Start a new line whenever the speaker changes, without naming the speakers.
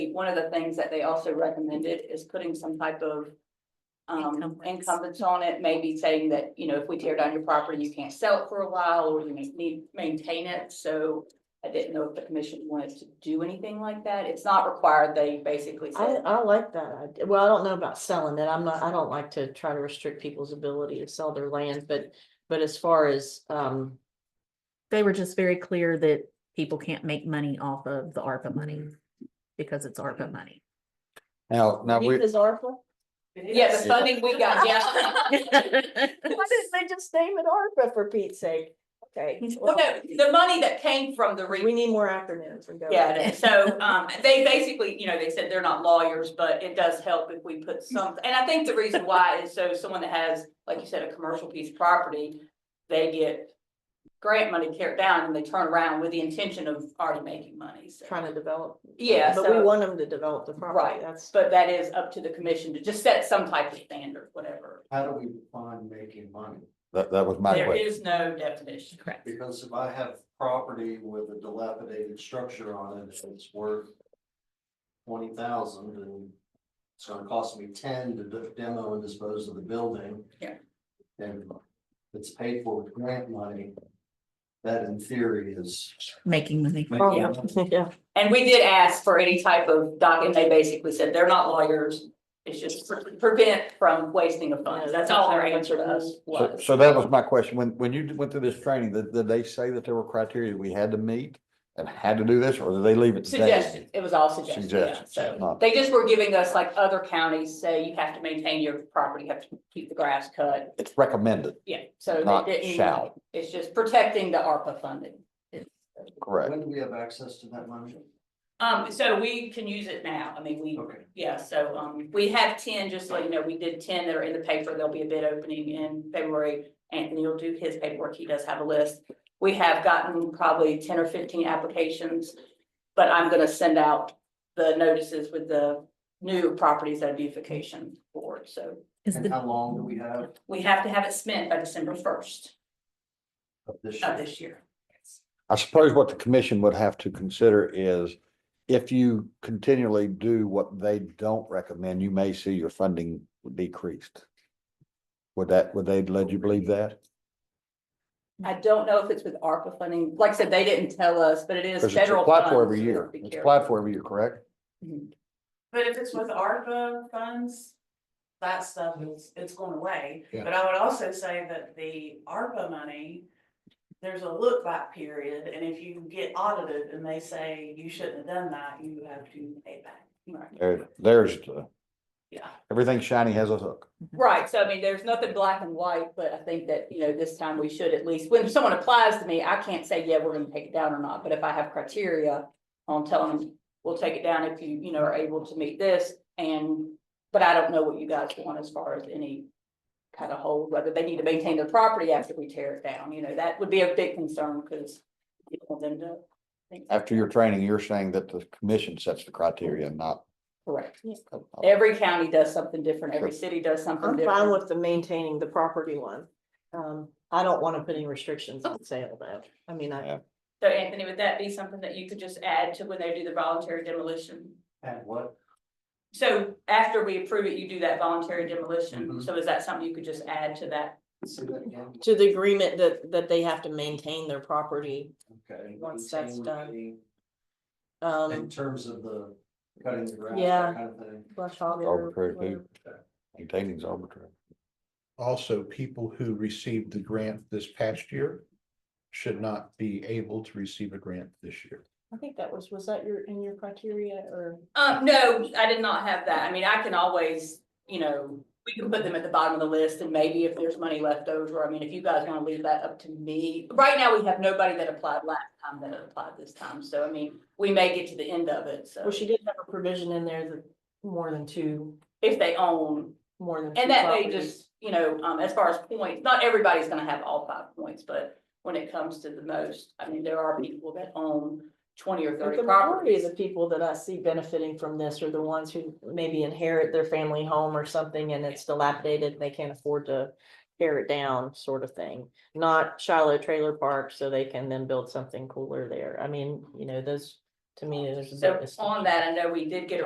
one of the things that they also recommended is putting some type of. Um,
Encumbrance.
encumbrance on it, maybe saying that, you know, if we tear down your property, you can't sell it for a while, or you may need, maintain it, so. I didn't know if the commission wanted to do anything like that, it's not required, they basically
I,
said,
I like that. idea. Well, I don't know about selling it. I'm not, I don't like to try to restrict people's ability to sell their land, but, but as far as, um,
They were just very clear that people can't make money off of the ARPA money because it's ARPA money.
Now, now we,
youth is ARPA.
yeah, the funding we got, yeah.
Why didn't they just name it ARPA for Pete's sake? Okay.
Well, no, the money that came from the re-
We need more acronyms. and go with
Yeah,
it.
and so, um, they basically, you know, they said they're not lawyers, but it does help if we put some, and I think the reason why is so someone that has, like you said, a commercial piece of property, they get grant money tear it down and they turn around with the intention of already making money, so.
Trying to develop.
Yeah,
But we
so,
want them to develop the
Right.
property. That's,
but that is up to the commission to just set some type of standard, whatever.
How do we define making money?
that, that was my
There
question.
is no definition.
Correct.
Because if I have property with a dilapidated structure on it, and it's worth twenty thousand and it's gonna cost me ten to de- demo and dispose of the building.
Yeah.
And it's paid for with grant money. That in theory is.
Making money.
Yeah.
yeah.
And we did ask for any type of document, they basically said they're not lawyers. It's just pre- prevent from wasting of funds, that's all their answer to us
So,
was.
so that was my question. When, when you went through this training, did, did they say that there were criteria we had to meet and had to do this, or did they leave it? to them?
Suggestions, it was all suggestions, yeah,
Suggestions,
so
not-
they just were giving us like other counties say you have to maintain your property, you have to keep the grass cut,
It's recommended,
yeah, so
Not
they didn't.
shall.
It's just protecting the ARPA funding.
correct?
When do we have access to that money?
Um, so we can use it now, I mean, we,
Okay.
yeah, so, um, we have ten, just so you know, we did ten that are in the paper, there'll be a bid opening in February. Anthony will do his paperwork, he does have a list. We have gotten probably ten or fifteen applications, but I'm gonna send out the notices with the new properties at beautification board, so
Is
And
the,
how long do we have
we have to have it spent by December first
of this
of
Uh,
year?
this year.
I suppose what the commission would have to consider is if you continually do what they don't recommend, you may see your funding decreased. Would that, would they let you believe that?
I don't know if it's with ARPA funding, like I said, they didn't tell us, but it is
Because it's
federal.
applied
funds,
for every
so
year.
be
It's
careful.
applied for every year, correct?
Mm-hmm.
But if it's with ARPA funds, that stuff is, it's going away.
Yeah.
But I would also say that the ARPA money, there's a look back period, and if you get audited and they say you shouldn't have done that, you have to pay back.
Right.
There, there's the,
Yeah.
everything shiny has a hook.
Right, so I mean, there's nothing black and white, but I think that, you know, this time we should at least, when someone applies to me, I can't say, yeah, we're gonna take it down or not, but if I have criteria. On telling them, we'll take it down if you, you know, are able to meet this and, but I don't know what you guys want as far as any. Kind of hold, whether they need to maintain their property after we tear it down, you know, that would be a big concern, because. You don't want them to
After your training, you're saying that the commission sets the criteria, not.
correct, every county does something different, every
Sure.
city does something
I'm fine
different.
with the maintaining the property one. Um, I don't want to put any restrictions on sale though. I mean, I,
Yeah.
So Anthony, would that be something that you could just add to when they do the voluntary demolition?
At what?
So after we approve it, you do that voluntary demolition,
Mhm.
so is that something you could just add to that?
Say that again.
to the agreement that, that they have to maintain their property.
Okay.
Once that's
Maintain,
done.
retain, In
Um,
terms of the cutting the grass,
Yeah.
that kind of thing.
brush hog or
Arbitrary
whatever.
too. Maintaining's arbitrary.
also people who received the grant this past year should not be able to receive a grant this year.
I think that was, was that your, in your criteria or?
Uh, no, I did not have that, I mean, I can always, you know, we can put them at the bottom of the list, and maybe if there's money left over, I mean, if you guys wanna leave that up to me. Right now, we have nobody that applied last time that applied this time, so I mean, we may get to the end of it, so
Well, she did have a provision in there that more than two,
if they own,
more than. two
and that may
properties.
just, you know, um, as far as points, not everybody's gonna have all five points, but when it comes to the most, I mean, there are people that own twenty or
But
thirty
the majority of
properties.
the people that I see benefiting from this are the ones who maybe inherit their family home or something and it's dilapidated, they can't afford to tear it down sort of thing, not Shiloh Trailer Park, so they can then build something cooler there. I mean, you know, those, to me, there's. a
So
big distinction.
on that, I know we did get a